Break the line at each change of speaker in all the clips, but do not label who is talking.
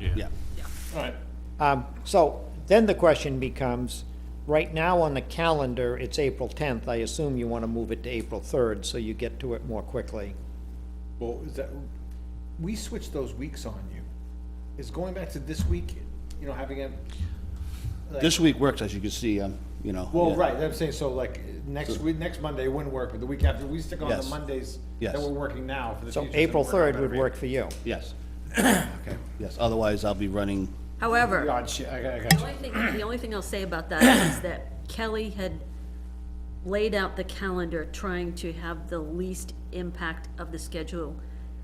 Yeah.
All right,
Um, So then the question becomes, right now on the calendar, it's April 10th. I assume you want to move it to April 3rd so you get to it more quickly.
Well, is that, we switched those weeks on you. Is going back to this week, you know, having a,
This week works, as you can see, um, you know.
well,
yeah.
right, I'm saying, so like, next week, next Monday wouldn't work, but the week after, we stick on the
Yes.
Mondays that
Yes.
we're working now for the
So
future.
April 3rd would work for you.
Yes. Okay. Yes, otherwise I'll be running,
However,
God, shit, I got, I got
The
you.
only thing, the only thing I'll say about that is that Kelly had laid out the calendar trying to have the least impact of the schedule,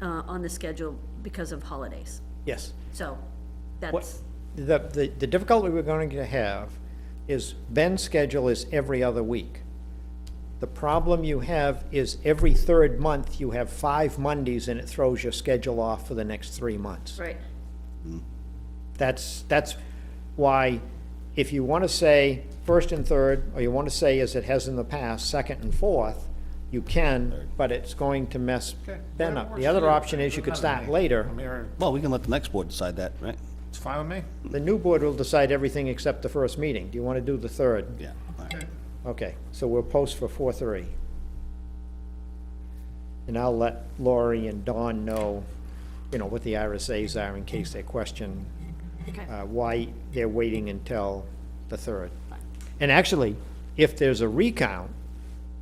uh, on the schedule because of holidays.
Yes.
So
What,
that's,
the, the the difficulty we're going to have is Ben's schedule is every other week. The problem you have is every third month, you have five Mondays and it throws your schedule off for the next three months.
right,
That's, that's why, if you want to say first and third, or you want to say, as it has in the past, second and fourth, you can, but it's going to mess
Okay,
Ben
whatever
up.
works
The
for
other
you.
option is you could
Doesn't matter to
start
me.
later.
I'm here,
well, we can let the next board decide that, right?
it's fine with me.
The new board will decide everything except the first meeting. Do you want to do the third?
Yeah. all right.
Okay, so we'll post for four three. And I'll let Lori and Dawn know, you know, what the RSA's are in case they question
okay,
uh, why they're waiting until the third. And actually, if there's a recount,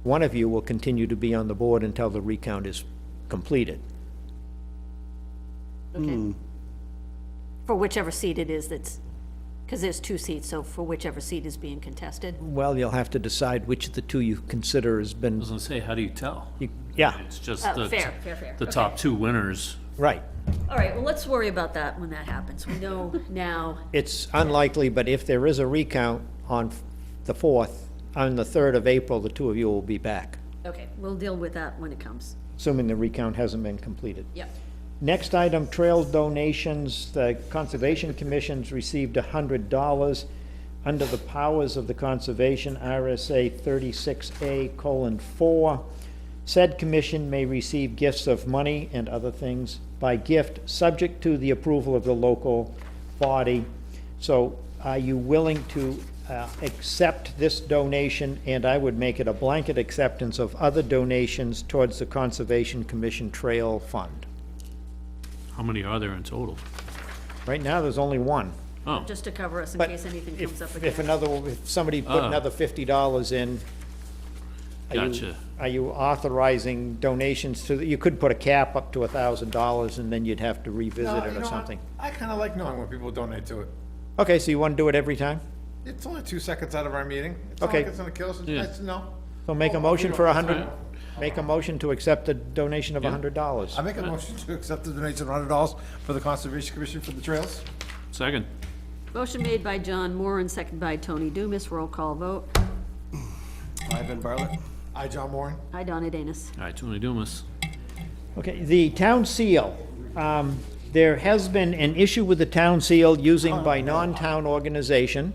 one of you will continue to be on the board until the recount is completed.
okay. For whichever seat it is that's, because there's two seats, so for whichever seat is being contested.
Well, you'll have to decide which of the two you consider has been,
I was gonna say, how do you tell?
you- yeah,
It's just
Oh,
the,
fair, fair, fair.
the
Okay.
top two winners.
right.
All right, well, let's worry about that when that happens. We know now,
It's unlikely, but if there is a recount on the 4th, on the 3rd of April, the two of you will be back,
okay, we'll deal with that when it comes.
assuming the recount hasn't been completed.
Yep.
Next item, trail donations. The Conservation Commission's received hundred dollars under the powers of the Conservation RSA thirty-six A colon four. Said commission may receive gifts of money and other things by gift, subject to the approval of the local body. So are you willing to uh, accept this donation? And I would make it a blanket acceptance of other donations towards the Conservation Commission Trail Fund.
How many are there in total?
Right now, there's only one.
Oh,
just to cover us in
But
case anything comes up
if,
again.
if another, if somebody put
Ah.
another fifty dollars in, are you-
Gotcha.
are you authorizing donations to, the- you could put a cap up to a thousand dollars and then you'd have to revisit
No, you
it or
know what?
something.
I kinda like knowing when people donate to it.
Okay, so you want to do it every time?
It's only two seconds out of our meeting. It's not
Okay.
like it's gonna kill us,
Yeah.
it's, no.
So make a
Oh,
motion
we
for
don't-
a hundred,
Alright.
make a motion to accept a donation of a hundred dollars.
I make a motion to accept the donation of hundred dollars for the Conservation Commission for the trails.
second.
Motion made by John Moore and second by Tony Dumas, roll call vote.
Ivan Bartlett?
I, John Moran.
Aye, Donna Danus.
All right, Tony Dumas.
Okay, the town seal, um, there has been an issue with the town seal using by non-town organization.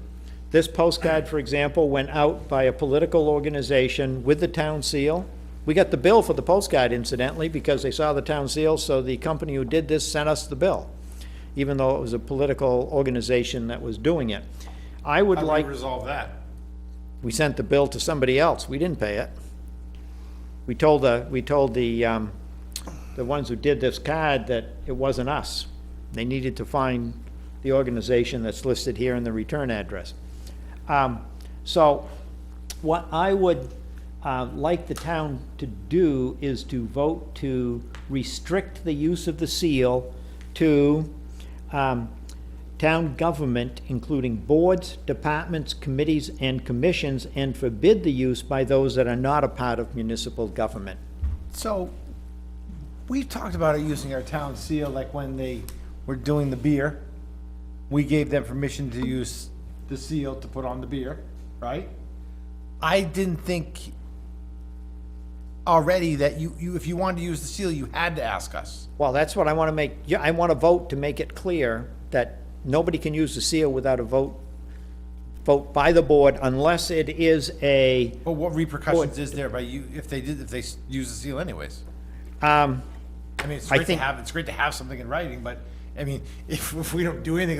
This postcard, for example, went out by a political organization with the town seal. We got the bill for the postcard incidentally, because they saw the town seal, so the company who did this sent us the bill, even though it was a political organization that was doing it. I would
How
like.
do we resolve that?
We sent the bill to somebody else, we didn't pay it. We told the, we told the, um, the ones who did this card that it wasn't us. They needed to find the organization that's listed here in the return address. Um, so, what I would, uh, like the town to do is to vote to restrict the use of the seal to, um, town government, including boards, departments, committees, and commissions, and forbid the use by those that are not a part of municipal government.
So, we've talked about it using our town seal, like when they were doing the beer. We gave them permission to use the seal to put on the beer, right? I didn't think already that you, you, if you wanted to use the seal, you had to ask us.
Well, that's what I want to make, yeah, I want to vote to make it clear that nobody can use the seal without a vote, vote by the board unless it is a,
But what repercussions is there by you, if they did, if they s- use the seal anyways?
um,
I mean, it's
I
great to
think-
have, it's great to have something in writing, but I mean, if, if we don't do anything